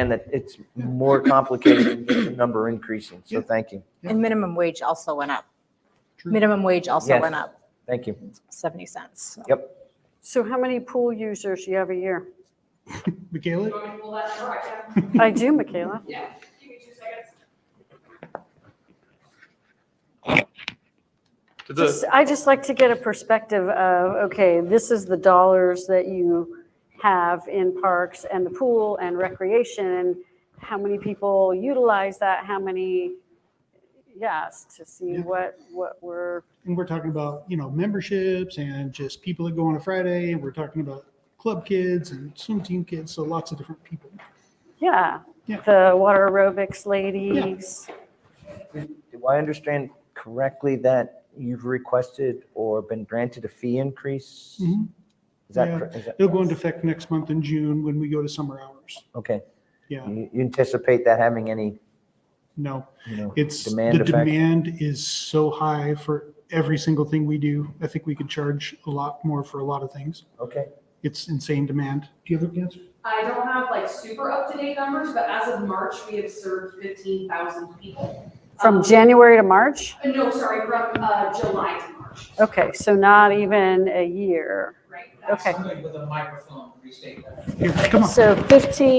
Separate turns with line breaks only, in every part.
and that it's more complicated than just the number increasing. So
Yeah.
thank you.
And minimum wage also went up.
True.
Minimum wage also
Yes.
went up
Thank you.
70 cents. so.
So how many pool users you have a year?
You
Michaela?
want me to pull that number right
I do, Michaela.
Yeah, give me two seconds.
To the,
Just- I just like to get a perspective of, okay, this is the dollars that you have in parks and the pool and recreation, and how many people utilize that, how many, yes, to see
Yeah.
what, what we're,
And we're talking about, you know, memberships and just people that go on a Friday. And we're talking about club kids and swim team kids. So lots of different people.
yeah.
Yeah.
The water aerobics ladies.
Do I understand correctly that you've requested or been granted a fee increase?
Mhm.
Is that
Yeah.
correct? Is that-
It'll go into effect next month in June when we go to summer hours.
Okay.
Yeah.
You you anticipate that having any,
No,
you know,
it's,
Demand
the
effect.
demand is so high for every single thing we do. I think we could charge a lot more for a lot of things.
okay,
It's insane demand. Do you have a answer?
I don't have like super up-to-date numbers, but as of March, we have served fifteen thousand people.
From
Um,
January to March?
uh, No, sorry, from, uh, July to March,
Okay, so not even a year.
right? That's-
Okay.
Somebody with a microphone, restate that.
Here, come on.
So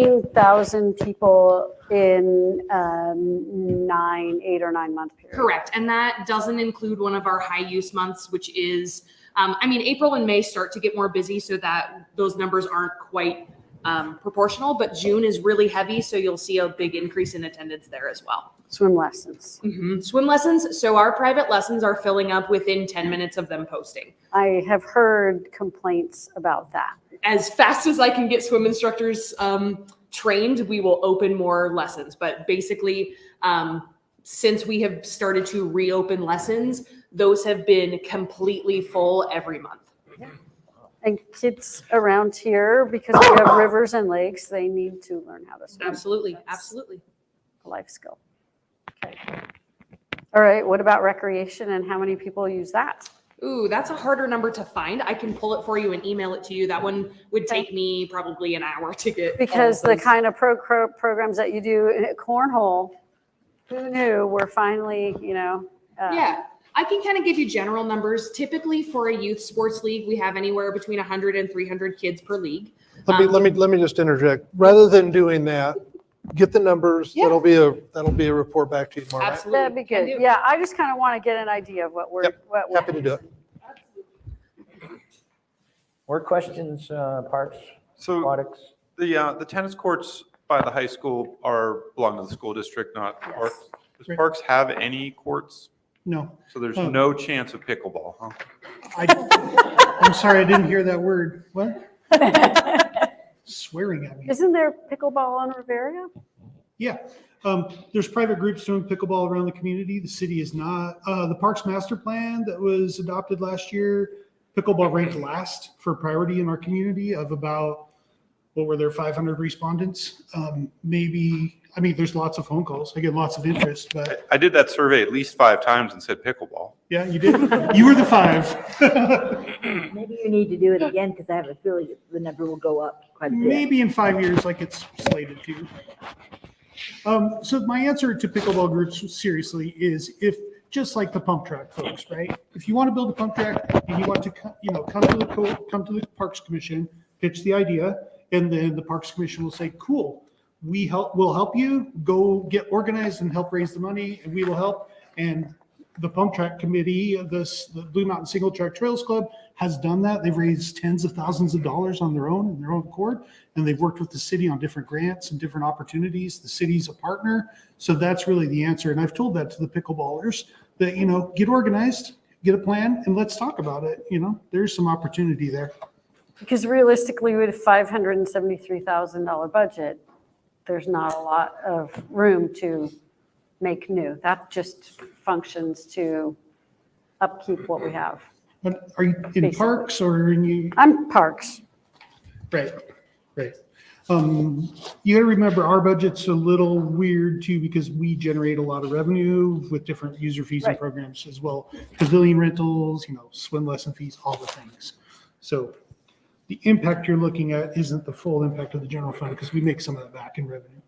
15,000 people in um, nine, eight or nine month period.
Correct. And that doesn't include one of our high use months, which is, um, I mean, April and May start to get more busy so that those numbers aren't quite, um, proportional, but June is really heavy, so you'll see a big increase in attendance there as well.
Swim lessons.
Mhm. Swim lessons. So our private lessons are filling up within 10 minutes of them posting.
I have heard complaints about that.
As fast as I can get swim instructors um, trained, we will open more lessons. But basically, um, since we have started to reopen lessons, those have been completely full every month.
And kids around here, because we have rivers and lakes, they need to learn how to swim.
Absolutely.
That's
Absolutely.
a Life skill. Okay. All right, what about recreation and how many people use that?
Ooh, that's a harder number to find. I can pull it for you and email it to you. That one would
Okay.
take me probably an hour to get. all of
Because the
those.
kind of pro, pro- programs that you do at Cornhole, who knew, we're finally, you know. uh,
Yeah, I can kind of give you general numbers. Typically, for a youth sports league, we have anywhere between 100 and 300 kids per league.
Let me,
Um,
let me, let me just interject. Rather than doing that, get the numbers.
Yeah.
That'll be a, that'll be a report back to you tomorrow. right?
Absolutely.
That'd be
can
good.
do.
Yeah, I just kind of want to get an idea of what we're,
Yep,
what we're.
Happy to do it.
more questions, uh, parks,
so
aquatics?
the, uh, the tennis courts by the high school are, belong to the school district, not
Yes.
parks. Does parks have any courts?
No,
So there's
Huh.
no chance of pickleball, huh?
I, I'm sorry, I didn't hear that word. What? Swearing at me.
Isn't there pickleball on Riviera?
Yeah, um, there's private groups doing pickleball around the community. The city is not. Uh, the Parks Master Plan that was adopted last year, pickleball ranked last for priority in our community of about, what were there, 500 respondents? Um, maybe, I mean, there's lots of phone calls. I get lots of interest,
I-
but
I did that survey at least five times and said pickleball.
yeah, you did. You were the five.
Maybe you need to do it again because I have a feeling the number will go up quite a bit.
maybe in five years, like it's slated to. Um, so my answer to pickleball groups seriously is if, just like the pump track folks, right? If you want to build a pump track and you want to, co- you know, come to the, co- come to the Parks Commission, pitch the idea, and then the Parks Commission will say, cool, we help, we'll help you, go get organized and help raise the money, and we will help. And the pump track committee, this, the Blue Mountain Single Track Trails Club has done that. They've raised tens of thousands of dollars on their own, in their own accord and they've worked with the city on different grants and different opportunities. The city's a partner. So that's really the answer. And I've told that to the pickleballers that, you know, get organized, get a plan, and let's talk about it. You know, there's some opportunity there.
Because realistically, with a $573,000 budget, there's not a lot of room to make new. That just functions to upkeep what we have.
But are you in
Basically.
parks or in you?
I'm parks.
Right, right. Um, you gotta remember our budget's a little weird too, because we generate a lot of revenue with different user fees and
Right.
programs as well. Pavilion rentals, you know, swim lesson fees, all the things. So the impact you're looking at isn't the full impact of the general fund because we make some of that back in revenue.